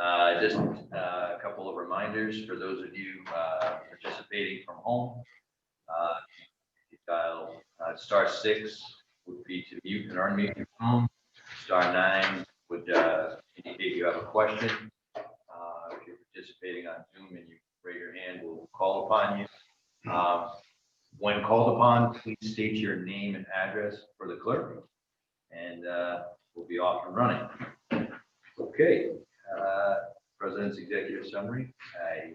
Uh, Just uh, a couple of reminders for those of you uh, participating from home. Uh, if you Dial uh, star six would be to mute and unmute your phone. Star nine would uh, indicate you have a question. Uh, If you're participating on Zoom and you raise your hand, we'll call upon you. Um, When called upon, please state your name and address for the clerk. And uh, we'll be off and running. Okay, uh, President's executive summary. I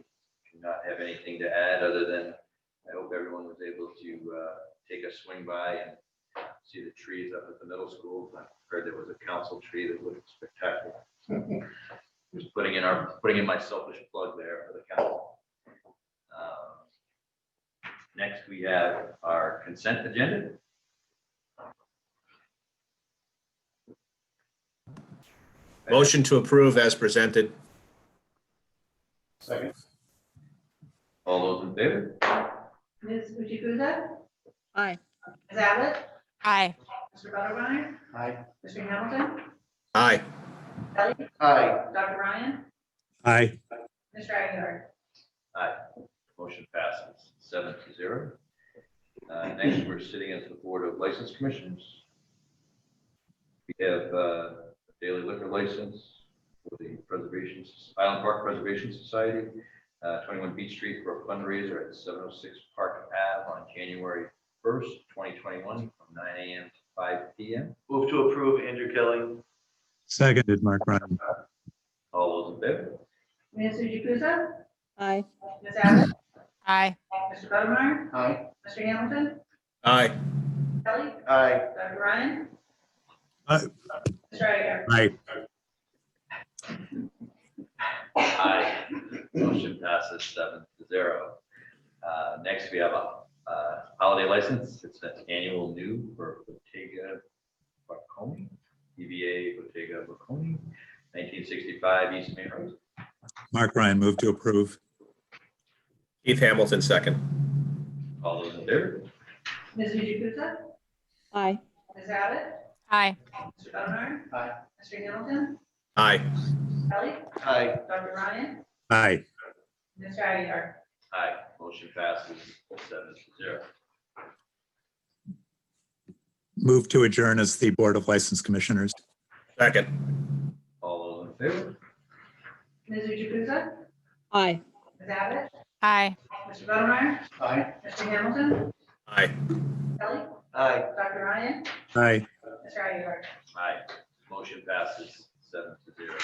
do not have anything to add other than I hope everyone was able to uh, take a swing by and see the trees up at the middle school. I heard there was a council tree that looked spectacular. Just putting in our, putting in my selfish plug there for the council. Um, Next, we have our consent agenda. Motion to approve as presented. Second. All those in favor? Ms. Judy Guzzo? Aye. Ms. Abbott? Aye. Mr. Buttermeyer? Aye. Mr. Hamilton? Aye. Ellie? Aye. Dr. Ryan? Aye, Mr. Aguilar? Aye. Motion passes seven to zero. Uh, Next, we're sitting as the Board of License Commissioners. We have uh, daily liquor license for the Preservation, Island Park Preservation Society, uh, 21 Beach Street for a fundraiser at 706 Park Ave on January 1st, 2021, from 9 a.m. to 5 p.m. Move to approve Andrew Kelly. seconded, Mark Ryan. All those in favor? Ms. Judy Guzzo? Aye. Ms. Abbott? Aye. Mr. Buttermeyer? Aye. Mr. Hamilton? Aye. Ellie? Aye. Dr. Ryan? Aye. Mr. Aguilar? Aye, Aye. Motion passes seven to zero. Uh, Next, we have a uh, holiday license. It's an annual new for Bottega Bocconi, EVA Bottega Bocconi, 1965 East Main Road. Mark Ryan, move to approve. Keith Hamilton, second. All those in favor? Ms. Judy Guzzo? Aye. Ms. Abbott? Aye. Mr. Buttermeyer? Aye. Mr. Hamilton? Aye. Ellie? Aye. Dr. Ryan? Aye, Mr. Aguilar? Aye. Motion passes seven to zero. move to adjourn as the Board of License Commissioners. Second. All those in favor? Ms. Judy Guzzo? Aye. Ms. Abbott? Aye. Mr. Buttermeyer? Aye. Mr. Hamilton? Aye. Ellie? Aye. Dr. Ryan? Aye, Mr. Aguilar? Aye. Motion passes seven to zero.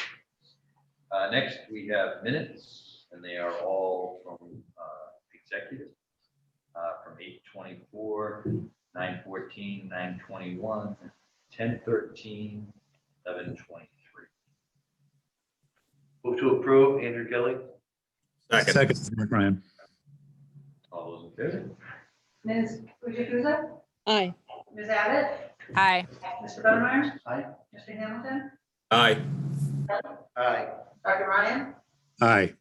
Uh, Next, we have minutes, and they are all from uh, executive, uh, from eight twenty-four, nine fourteen, nine twenty-one, ten thirteen, eleven twenty-three. Move to approve Andrew Kelly. Second. seconded, Mark Ryan. All those in favor? Ms. Judy Guzzo? Aye. Ms. Abbott? Aye. Mr. Buttermeyer? Aye. Mr. Hamilton? Aye. Aye. Dr. Ryan? Aye,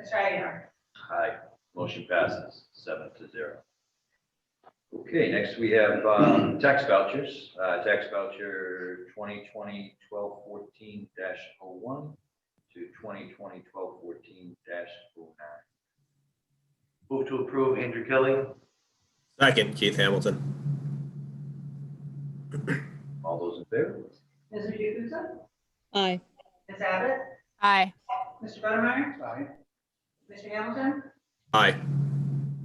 Mr. Aguilar? Aye. Motion passes seven to zero. Okay, next we have um, tax vouchers. Uh, Tax voucher 2020-1214-01 to 2020-1214-09. Move to approve Andrew Kelly. Second. Keith Hamilton. All those in favor? Ms. Jukusa? Aye. Ms. Abbott? Aye. Mr. Buttermeyer? Aye. Mr. Hamilton? Aye.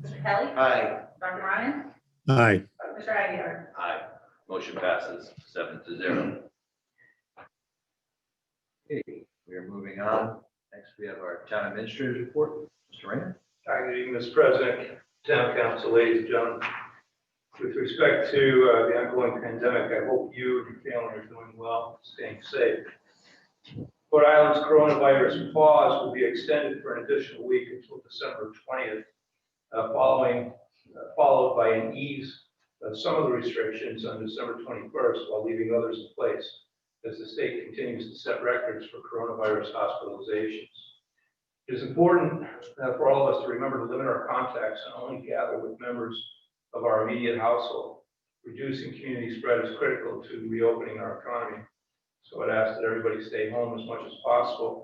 Mr. Kelly? Aye. Dr. Ryan? aye, Mr. Aguilar? Aye. Motion passes seven to zero. Okay, we are moving on. Next, we have our town administrator's report. Mr. Rayner? Hi, good evening, Mr. President, Town Council, ladies and gentlemen. With respect to uh, the ongoing pandemic, I hope you and your family are doing well, staying safe. Rhode Island's coronavirus pause will be extended for an additional week until December 20th, uh, following, uh, followed by an ease of some of the restrictions on December 21st while leaving others in place as the state continues to set records for coronavirus hospitalizations. It is important uh, for all of us to remember to limit our contacts and only gather with members of our immediate household. Reducing community spread is critical to reopening our economy. So I'd ask that everybody stay home as much as possible